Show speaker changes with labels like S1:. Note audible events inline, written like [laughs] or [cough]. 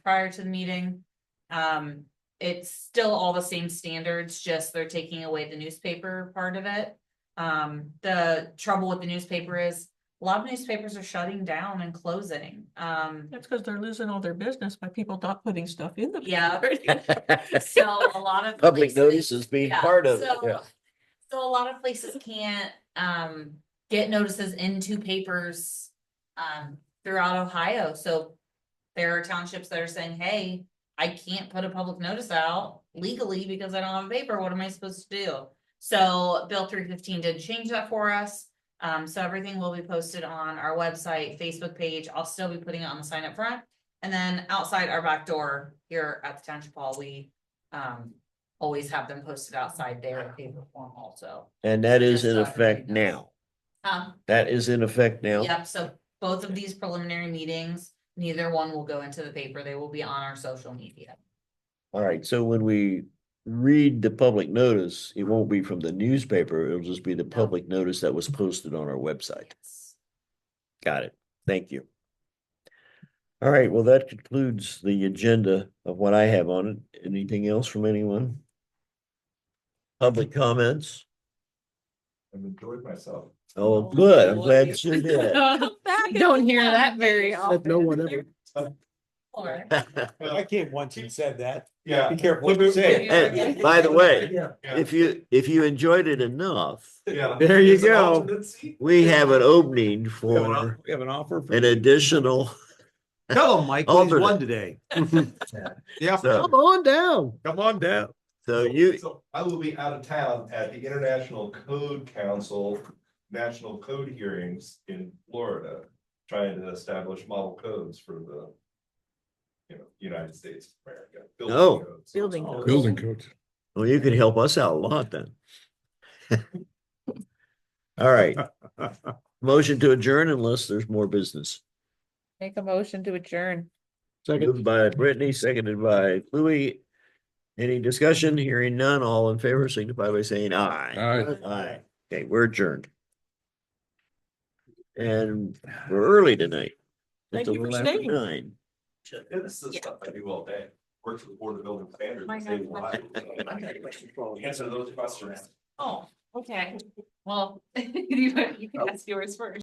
S1: prior to the meeting. Um, it's still all the same standards, just they're taking away the newspaper part of it. Um, the trouble with the newspaper is a lot of newspapers are shutting down and closing. Um,
S2: That's because they're losing all their business by people not putting stuff in the.
S1: Yeah.
S3: [laughs]
S2: [laughs]
S4: [laughs]
S2: paper.
S1: so a lot of.
S4: Public
S1: places-
S4: notice is being
S1: Yeah,
S4: part of it,
S1: so-
S4: yeah.
S1: So a lot of places can't um get notices into papers um throughout Ohio, so. There are townships that are saying, hey, I can't put a public notice out legally because I don't have a paper, what am I supposed to do? So Bill three fifteen did change that for us, um so everything will be posted on our website, Facebook page, I'll still be putting it on the sign up front. And then outside our back door here at the township hall, we um always have them posted outside there in paper form also.
S4: And that is
S1: Just
S4: in
S1: so everybody
S4: effect
S1: knows.
S4: now.
S1: Um,
S4: That is in effect now.
S1: yep, so both of these preliminary meetings, neither one will go into the paper, they will be on our social media.
S4: All right, so when we read the public notice, it won't be from the newspaper, it'll just be the public notice that was posted on our website. Got it. Thank you. All right, well, that concludes the agenda of what I have on it. Anything else from anyone? Public comments?
S5: I've enjoyed myself.
S4: Oh, good. I'm glad you did.
S2: Uh,
S3: Don't hear that very often.
S6: No one ever.
S1: Or, [laughs]
S6: I came once and said that.
S5: Yeah.
S6: Be careful what you say.
S4: And by the way,
S5: Yeah.
S4: if you, if you enjoyed it enough,
S5: Yeah.
S4: there you
S5: It's an
S4: go.
S5: alternate seat.
S4: we have an opening
S6: We have an off-
S4: for
S6: we have an offer. for
S4: an
S6: you.
S4: additional,
S6: [laughs] Tell him, Mike, he's
S4: alternate.
S6: won today. Yeah,
S4: So-
S6: come on down. Come on down.
S4: so you,
S5: So I will be out of town at the International Code Council National Code Hearings in Florida, trying to establish model codes for the you know, United States of America. building
S4: Oh.
S5: codes.
S2: Building
S5: Oh,
S2: codes.
S6: Building
S5: codes.
S4: Well, you can help us out a lot then. [laughs] All right, motion to adjourn unless there's more business.
S3: Make a motion to adjourn.
S4: Moved by Brittany, seconded by Louis. Any discussion? Hearing none, all in favor, signify by saying aye. Aye. Okay, we're adjourned. And we're early tonight.
S2: Thank
S4: It's a
S2: you for
S4: little after
S2: staying.
S4: nine.
S5: Yeah, This is stuff I do all day. Work for the Board of Building Standards. and save lives.
S2: [laughs]
S5: Answer those questions.
S1: oh, okay, well, you you can ask yours first.